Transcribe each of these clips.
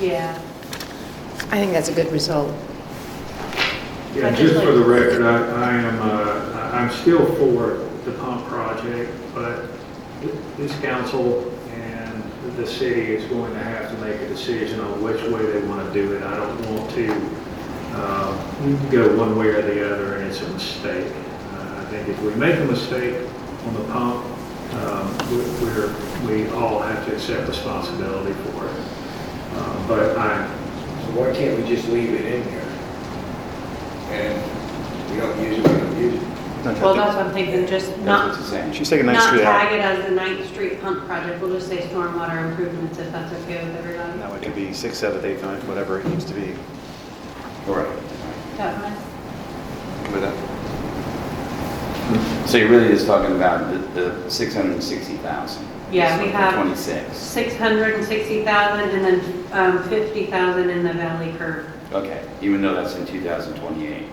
Yeah, I think that's a good result. Yeah, But just just for the like- record, I, I am, uh, I- I'm still for the pump project, but th- this council and the city is going to have to make a decision on which way they want to do it. I don't want to, um, go one way or the other, and it's a mistake. Uh, I think if we make a mistake on the pump, um, we- we're, we all have to accept responsibility for it. Uh, But I, So why can't we just leave it in there? And we don't use it, we don't use it. well, that's what I'm thinking, just That's not, what it's saying. She's taking Ninth not Street tag out. it as the Ninth Street pump project, we'll just say stormwater improvements if that's okay with everybody. Now it could be six, seven, eight, nine, whatever it needs to be. All right. Is that fine? With that. So you're really just talking about the, the six hundred and sixty thousand? Yeah, we have- Twenty-six, 660,000 and then um, 50,000 in the valley curve. okay, even though that's in two thousand twenty-eight.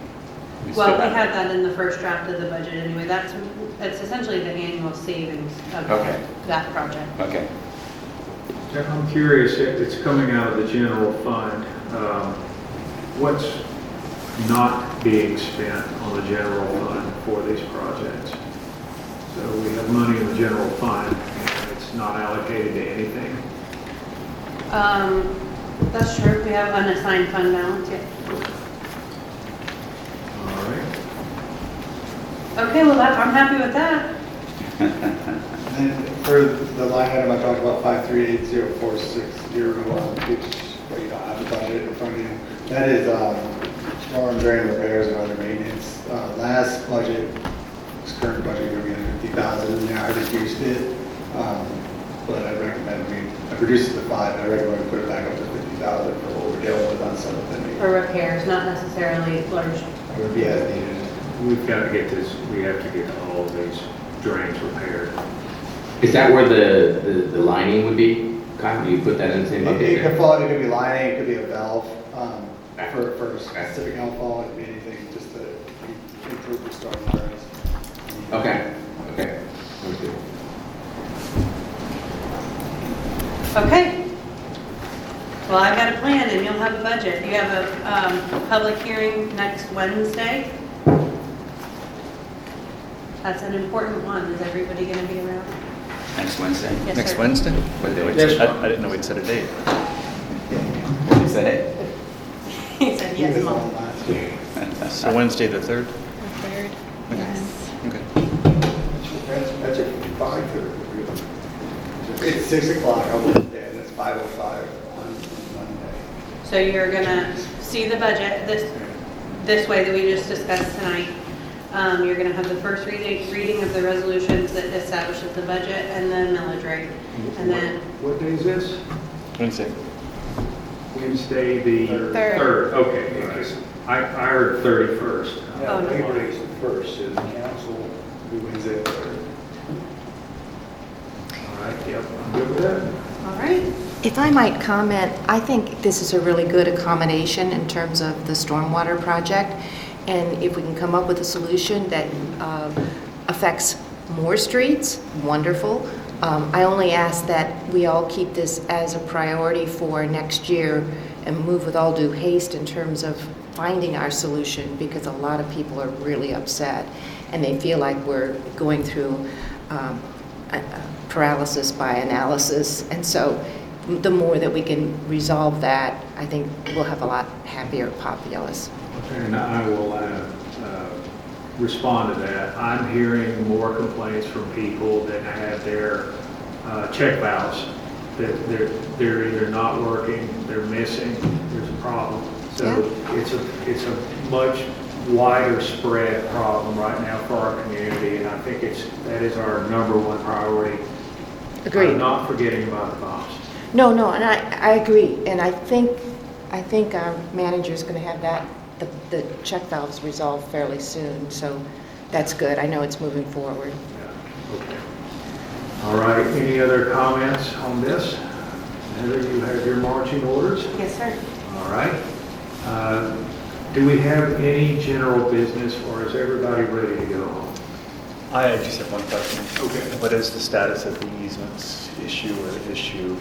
Well, we had that in the first draft of the budget anyway, that's, that's essentially the annual savings of Okay. that project. Okay, I'm curious, it- it's coming out of the general fund. um, What's not being spent on the general fund for these projects? So we have money in the general fund, and it's not allocated to anything. Um, That's true, we have unassigned fund balance, yeah. All right. Okay, well, that, I'm happy with that. And for the line item, I talked about five three eight zero four six zero, um, which, well, you don't have the budget in front of you. That is, um, storm drain repairs and other maintenance. Uh, last budget, this current budget, we're gonna fifty thousand, in there. I reduced it. Um, but I recommend we, I reduced it to five, I recommend we put it back up to fifty thousand for what we're dealing with on some of the For repairs, not necessarily large. It would be as needed. We've got to get this, we have to get all of these drains repaired. Is that where the, the, the lining would be? Kyle, do you put that in the same It bucket? it could there? fall, it could be lining, it could be a valve, um, for, for a specific outfall, it could be anything, just to improve the storm drains. Okay, okay. Sounds good. Okay. Well, I've got a plan and you'll have a budget. You have a um, public hearing next Wednesday. That's an important one. Is everybody going to be around? next Wednesday? Yes, Next sir. Wednesday? What day I was it? I didn't know we'd set a date. What is that? He said yes, Mom. So Wednesday, the 3rd? Third, yes. Okay. That's, that's at five thirty. It's six o'clock on Wednesday, and it's five oh five on So you're going to see the budget this, this way that we just discussed tonight. Um, You're going to have the first reading, reading of the resolutions that establishes the budget and the millage rate. And then What day is this? Wednesday. Wednesday, the Third. 3rd. Okay, okay. I, I heard 31st. Oh, no. Monday. Labor Day's the first, and council, we Wednesday the third. All right, yep, I'm good with that. All right. If I might comment, I think this is a really good accommodation in terms of the stormwater project. And if we can come up with a solution that uh, affects more streets, wonderful. Um, I only ask that we all keep this as a priority for next year and move with all due haste in terms of finding our solution because a lot of people are really upset and they feel like we're going through um, uh, paralysis by analysis. And so the more that we can resolve that, I think we'll have a lot happier populace. And I will uh, uh, respond to that. I'm hearing more complaints from people that have their uh, check valves, that they're, they're either not working, they're missing, there's a problem. So it's a, it's a much wider spread problem right now for our community, and I think it's, that is our number one priority. I'm Agreed. not forgetting about the pumps. No, no, and I, I agree. And I think, I think our manager's going to have that, the, the check valves resolved fairly soon. So that's good. I know it's moving forward. Yeah, okay. All right, any other comments on this? Heather, you have your marching orders? Yes, sir. All right. Uh, Do we have any general business, or is everybody ready to go home? I just have one question. Okay. What is the status of the easements issue or issue